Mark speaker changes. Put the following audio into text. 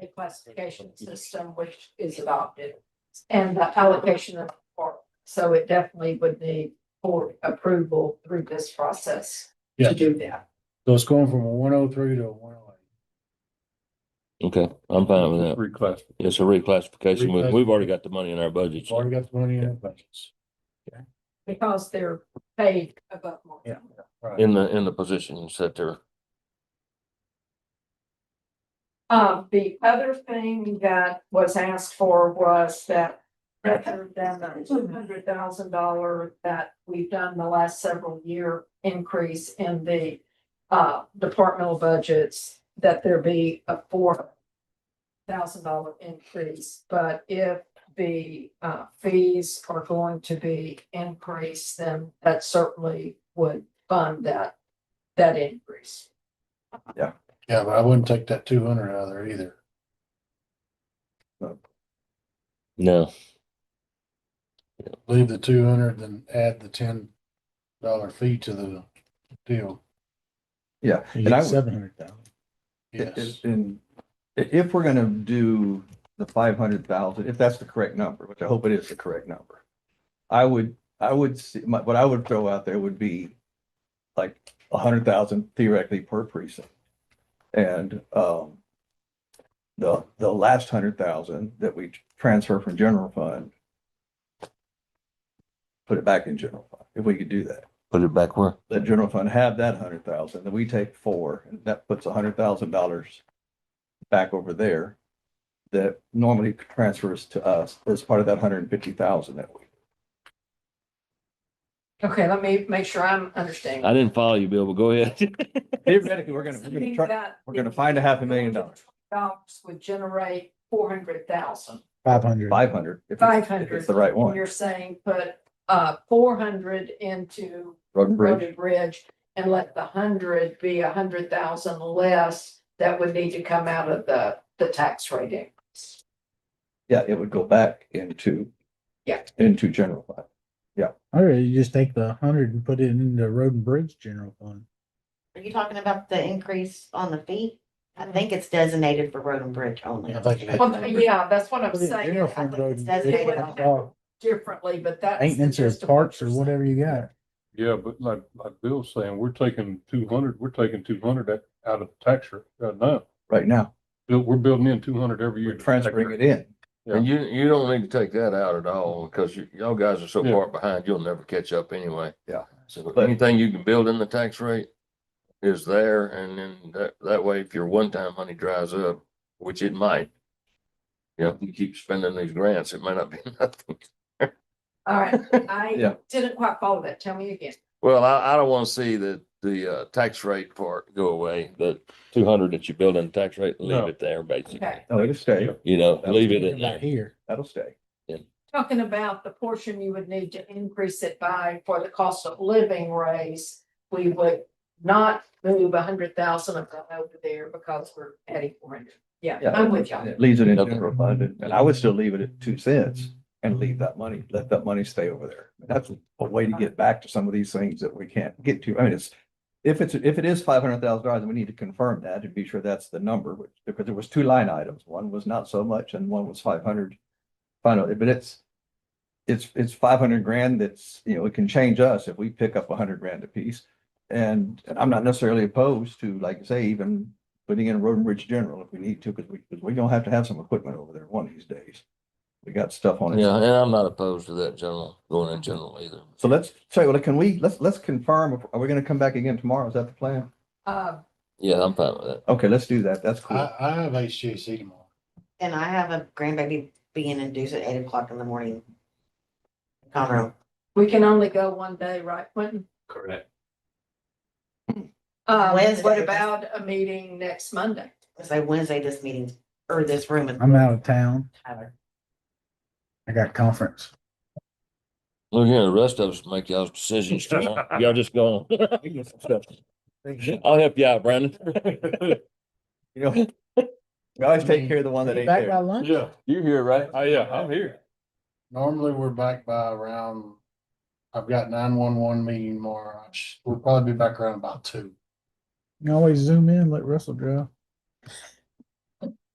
Speaker 1: the classification system which is adopted. And the allocation of, or, so it definitely would need board approval through this process
Speaker 2: Yeah.
Speaker 1: to do that.
Speaker 2: So it's going from a one oh three to a one oh
Speaker 3: Okay, I'm fine with that.
Speaker 2: Request.
Speaker 3: It's a reclassification. We- We've already got the money in our budget.
Speaker 2: Already got the money in the budgets.
Speaker 1: Because they're paid above market.
Speaker 2: Yeah. Right.
Speaker 3: In the, in the positions that they're,
Speaker 1: Uh, the other thing that was asked for was that rather than the two hundred thousand dollar that we've done the last several year increase in the uh, departmental budgets, that there be a four thousand dollar increase, but if the uh, fees are going to be increased, then that certainly would fund that, that increase.
Speaker 2: Yeah, but I wouldn't take that two hundred out of there either.
Speaker 3: no,
Speaker 2: Leave the two hundred, then add the ten dollar fee to the deal.
Speaker 4: Yeah,
Speaker 5: You
Speaker 4: and I
Speaker 5: get
Speaker 4: would-
Speaker 5: seven hundred thousand.
Speaker 2: Yes.
Speaker 4: And i- if we're gonna do the five hundred thousand, if that's the correct number, which I hope it is the correct number. I would, I would see, my, what I would throw out there would be like a hundred thousand theoretically per precinct. And, um, the, the last hundred thousand that we transfer from general fund, put it back in general fund, if we could do that
Speaker 3: put it back where?
Speaker 4: the general fund have that hundred thousand, then we take four, and that puts a hundred thousand dollars back over there that normally transfers to us as part of that hundred and fifty thousand that we.
Speaker 1: Okay, let me make sure I'm understanding.
Speaker 3: I didn't follow you, Bill, but go ahead.
Speaker 4: Theoretically, we're gonna, we're gonna
Speaker 1: Saying
Speaker 4: try,
Speaker 1: that
Speaker 4: we're gonna
Speaker 1: the
Speaker 4: find a half a million dollars,
Speaker 1: Dollars would generate four hundred thousand.
Speaker 5: Five hundred.
Speaker 4: five hundred. if it's- If
Speaker 1: 500.
Speaker 4: it's the right one.
Speaker 1: You're saying put uh four hundred into
Speaker 4: Road and
Speaker 1: Road
Speaker 4: bridge,
Speaker 1: and Bridge and let the hundred be a hundred thousand less that would need to come out of the the tax rate increase.
Speaker 4: yeah, it would go back into.
Speaker 1: Yeah.
Speaker 4: Into general fund.
Speaker 5: All right, you just take the hundred and put it in the road and bridge general fund.
Speaker 6: Are you talking about the increase on the fee? I think it's designated for road and bridge only.
Speaker 2: I think it had-
Speaker 1: Well, yeah, that's what I'm
Speaker 5: Put it in
Speaker 1: saying.
Speaker 5: general
Speaker 1: I
Speaker 5: fund,
Speaker 1: think
Speaker 5: road
Speaker 1: it's
Speaker 5: and
Speaker 6: that's
Speaker 5: bridge,
Speaker 6: what
Speaker 1: designated
Speaker 6: I'm-
Speaker 5: uh,
Speaker 1: Differently, but that's. the
Speaker 5: Maintenance or
Speaker 1: gist of
Speaker 5: parks or
Speaker 1: you're saying.
Speaker 5: whatever you got.
Speaker 7: Yeah, but like, like Bill's saying, we're taking two hundred, we're taking two hundred out of the tax rate right now.
Speaker 4: Right now,
Speaker 7: Bill- We're building in two hundred every year.
Speaker 4: we're
Speaker 7: to the tax
Speaker 4: transferring
Speaker 7: rate.
Speaker 4: it in.
Speaker 3: And you, you don't need to take that out at all because you, y'all guys are so
Speaker 7: Yeah.
Speaker 3: far behind, you'll never catch up anyway.
Speaker 4: Yeah.
Speaker 3: So
Speaker 4: But-
Speaker 3: anything you can build in the tax rate is there and then that, that way if your one-time money dries up, which it might. You know, if you keep spending these grants, it might not be nothing.
Speaker 1: All right,
Speaker 4: Yeah.
Speaker 1: I didn't quite follow that. Tell me again.
Speaker 3: Well, I, I don't want to see the, the, uh, tax rate part go away, the two hundred that you build in tax rate, leave
Speaker 7: No.
Speaker 3: it there basically.
Speaker 1: Okay.
Speaker 4: No, it'll stay.
Speaker 3: You know, leave it in
Speaker 5: Right
Speaker 3: there.
Speaker 5: here.
Speaker 4: That'll stay.
Speaker 1: talking about the portion you would need to increase it by for the cost of living raise, we would not move a hundred thousand of that over there because we're adding four hundred. Yeah,
Speaker 4: Yeah.
Speaker 1: I'm with y'all.
Speaker 4: It Leaves it in
Speaker 3: Okay.
Speaker 4: general fund, and and I would still leave it at two cents and leave that money, let that money stay over there. That's a way to get back to some of these things that we can't get to. I mean, it's. If it's, if it is five hundred thousand dollars, we need to confirm that and be sure that's the number, which, because there was two line items. One was not so much and one was five hundred. Finally, but it's. It's, it's five hundred grand that's, you know, it can change us if we pick up a hundred grand apiece. And, and I'm not necessarily opposed to, like I say, even putting in a road and bridge general if we need to, because we, because we don't have to have some equipment over there one of these days. We got stuff on it.
Speaker 3: Yeah, and I'm not opposed to that general, going in general either.
Speaker 4: So let's, so well, can we, let's, let's confirm, if- are we gonna come back again tomorrow? Is that the plan?
Speaker 1: Uh,
Speaker 3: Yeah, I'm fine with that.
Speaker 4: Okay, let's do that. That's cool.
Speaker 5: Uh,
Speaker 2: I, I have HJC tomorrow.
Speaker 6: And I have a grandbaby being induced at eight o'clock in the morning. Conroe.
Speaker 1: we can only go one day, right, Quentin?
Speaker 8: Correct.
Speaker 1: Um,
Speaker 6: Wednesday.
Speaker 1: what about a meeting next Monday?
Speaker 6: say Wednesday, this meeting, or this room is
Speaker 5: I'm out of town.
Speaker 6: Tyler.
Speaker 5: I got conference.
Speaker 3: Look here, the rest of us make y'all's decisions. tomorrow. Y'all just go on. I'll help you out, Brandon.
Speaker 4: You know, we always take care of the one that ain't
Speaker 5: Back by
Speaker 4: there.
Speaker 5: lunch?
Speaker 7: Yeah,
Speaker 3: You're here, right?
Speaker 7: oh, yeah, I'm here.
Speaker 2: Normally, we're back by around, I've got nine one one meeting tomorrow. I sh- We'll probably be back around about two.
Speaker 5: You can always zoom in, let Russell draw.